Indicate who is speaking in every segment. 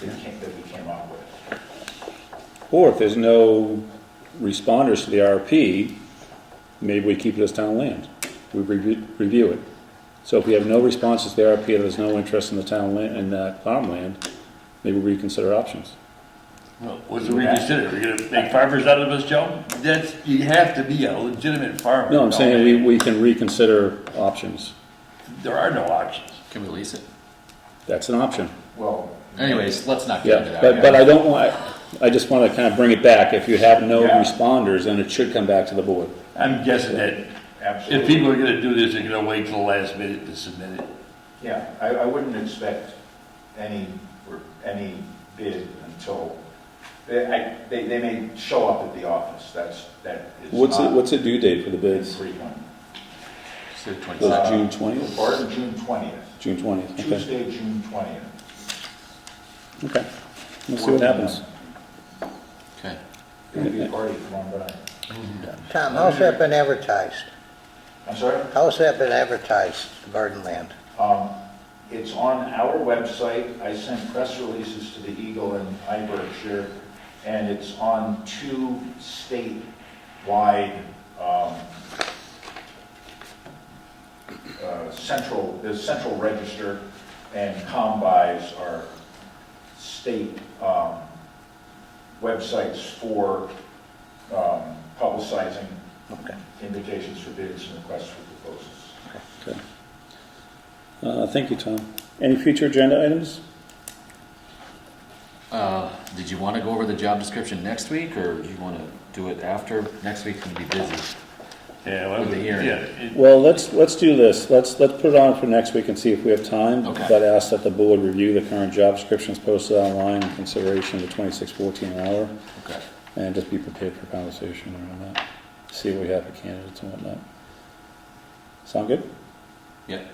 Speaker 1: that came, that we came up with.
Speaker 2: Or if there's no responders to the RFP, maybe we keep it as town land. We review, review it. So if we have no responses to the RFP, and there's no interest in the town land, in that farmland, maybe we reconsider options.
Speaker 3: Well, What's the reconsider? We're gonna make farmers out of us, Joe? That's, you have to be a legitimate farmer.
Speaker 2: No, I'm saying we, we can reconsider options.
Speaker 3: There are no options.
Speaker 4: Can we release it?
Speaker 2: That's an option.
Speaker 1: Well,
Speaker 4: Anyways, let's not get into
Speaker 2: Yeah,
Speaker 4: that.
Speaker 2: but, but I don't want, I just want to kind of bring it back. If you have no
Speaker 1: Yeah.
Speaker 2: responders, then it should come back to the board.
Speaker 3: I'm guessing that if
Speaker 1: absolutely,
Speaker 3: people are gonna do this, they're gonna wait till the last minute to submit it.
Speaker 1: yeah, I, I wouldn't expect any, or any bid until, they, I, they, they may show up at the office, that's, that is
Speaker 2: What's, the-
Speaker 1: not
Speaker 2: what's the due date for the bids?
Speaker 1: infrequent.
Speaker 4: So
Speaker 2: Was
Speaker 4: 27.
Speaker 2: it June twentieth?
Speaker 1: Barton, June twentieth,
Speaker 2: June twentieth, okay,
Speaker 1: Tuesday, June twentieth.
Speaker 2: okay. We'll see what happens.
Speaker 4: Okay.
Speaker 1: It'll be a party for one, but I,
Speaker 5: Tom, how's that been advertised?
Speaker 1: I'm sorry?
Speaker 5: How's that been advertised, Gardenland?
Speaker 1: Um, It's on our website. I sent press releases to the Eagle and I Berkshire, and it's on two statewide um, uh, central, the central register and combis are state um, websites for um, publicizing
Speaker 5: Okay.
Speaker 1: invitations for bids and requests for proposals.
Speaker 2: Okay. Uh, thank you, Tom. Any future agenda items?
Speaker 4: Uh, Did you want to go over the job description next week, or do you want to do it after? Next week's going to be busy.
Speaker 3: Yeah, well,
Speaker 4: With the hearing.
Speaker 3: yeah, it-
Speaker 2: Well, let's, let's do this. Let's, let's put it on for next week and see if we have time.
Speaker 4: Okay.
Speaker 2: But ask that the board review the current job descriptions posted online in consideration of the twenty-six fourteen an hour.
Speaker 4: Okay.
Speaker 2: And just be prepared for conversation around that. See what we have for candidates and whatnot. Sound good?
Speaker 4: Yep.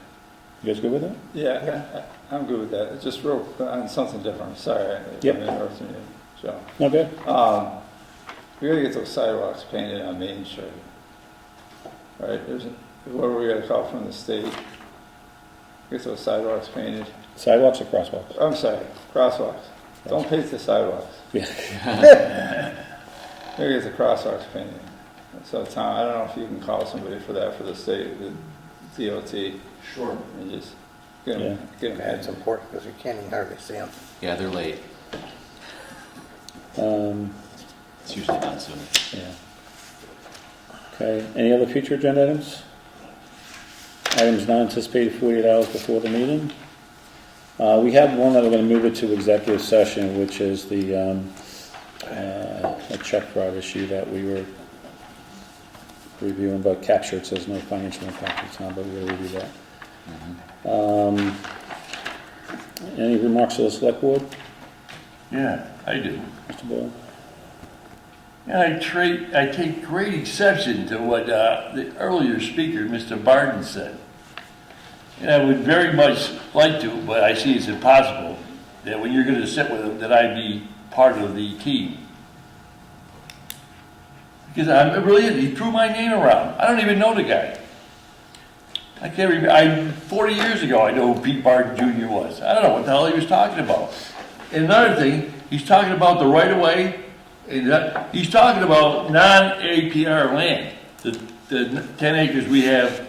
Speaker 2: You guys good with that?
Speaker 6: Yeah, I- I- I'm good with that. It's Just real, on something different, I'm sorry. I-
Speaker 2: Yep.
Speaker 6: I'm interrupting you, Joe.
Speaker 2: Not bad?
Speaker 6: Um, We gotta get those sidewalks painted on Main Street. Right, there's, what are we gonna call from the state? Get those sidewalks painted.
Speaker 2: Sidewalks or crosswalks?
Speaker 6: I'm sorry, crosswalks. Don't paint the sidewalks.
Speaker 2: Yeah.
Speaker 6: Maybe it's a crosswalks painting. So Tom, I don't know if you can call somebody for that for the state, the DOT,
Speaker 1: Sure.
Speaker 6: and just get
Speaker 2: Yeah.
Speaker 6: them, get them.
Speaker 5: That's important because you can't even hardly see them.
Speaker 4: Yeah, they're late.
Speaker 2: Um,
Speaker 4: It's usually done soon.
Speaker 2: yeah. Okay, any other future agenda items? Items not anticipated forty-eight hours before the meeting? Uh, we have one that we're gonna move it to executive session, which is the, um, uh, a check fraud issue that we were reviewing, but captured, says no financial impact to town, but we'll review that. Um, any remarks to the select board,
Speaker 3: yeah, I do.
Speaker 2: Mr. Boyle?
Speaker 3: And I tra- I take great exception to what uh, the earlier speaker, Mr. Barton, said. And I would very much like to, but I see it's impossible, that when you're gonna sit with him, that I be part of the team. Because I'm, really, he threw my name around. I don't even know the guy. I can't remember, I, forty years ago, I know who Pete Barton Junior was. I don't know what the hell he was talking about. And another thing, he's talking about the right of way, and that, he's talking about non-APR land. The, the ten acres we have,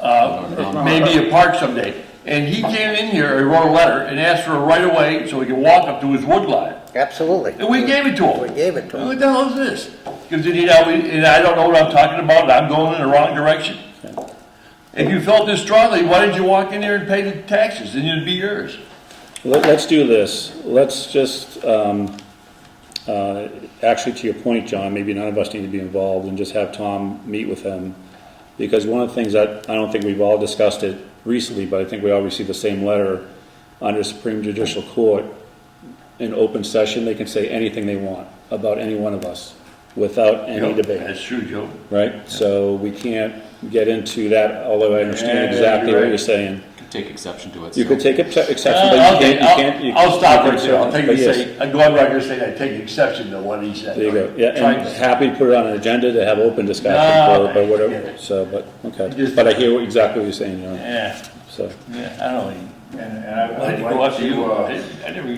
Speaker 2: Oh.
Speaker 3: uh, maybe a park someday. And he came in here, he wrote a letter and asked for a right of way so he could walk up to his wood lot.
Speaker 5: Absolutely.
Speaker 3: And we gave it to him.
Speaker 5: We gave it to
Speaker 3: What
Speaker 5: them.
Speaker 3: the hell is this? Because, you know, we- and I don't know what I'm talking about, and I'm going in the wrong direction. If you felt this strongly, why didn't you walk in there and pay the taxes, and it'd be yours?
Speaker 2: Let- Let's do this. Let's just, um, uh, actually, to your point, John, maybe none of us need to be involved and just have Tom meet with them. Because one of the things that, I don't think we've all discussed it recently, but I think we all received the same letter under Supreme Judicial Court. In open session, they can say anything they want about any one of us without any debate,
Speaker 3: That's true, Joe.
Speaker 2: right? So we can't get into that, although I
Speaker 3: Yeah,
Speaker 2: understand
Speaker 3: you're
Speaker 2: exactly what
Speaker 3: right.
Speaker 2: you're saying.
Speaker 4: Could take exception to it.
Speaker 2: You
Speaker 4: so-
Speaker 2: could take exce- exception, but you
Speaker 3: Uh, Okay,
Speaker 2: can't, you can't. you-
Speaker 3: I'll- I'll stop
Speaker 2: you
Speaker 3: right
Speaker 2: can't-
Speaker 3: there, I'll take,
Speaker 2: but
Speaker 3: a
Speaker 2: yes.
Speaker 3: say, I go on record saying I take exception to what he said.
Speaker 2: There you go, yeah,
Speaker 3: Trying
Speaker 2: and
Speaker 3: to-
Speaker 2: happy to put it on an agenda to have open discussion,
Speaker 3: No,
Speaker 2: or or
Speaker 3: I get
Speaker 2: whatever,
Speaker 3: it.
Speaker 2: so, but, okay.
Speaker 3: Uh, Just-
Speaker 2: But I hear what- exactly what you're saying, you know,
Speaker 3: Yeah,
Speaker 2: so,
Speaker 3: yeah, I don't know,
Speaker 1: And, and I
Speaker 3: I had
Speaker 1: would
Speaker 3: to go
Speaker 1: like
Speaker 3: after you.
Speaker 1: to, uh,
Speaker 3: I didn't- I never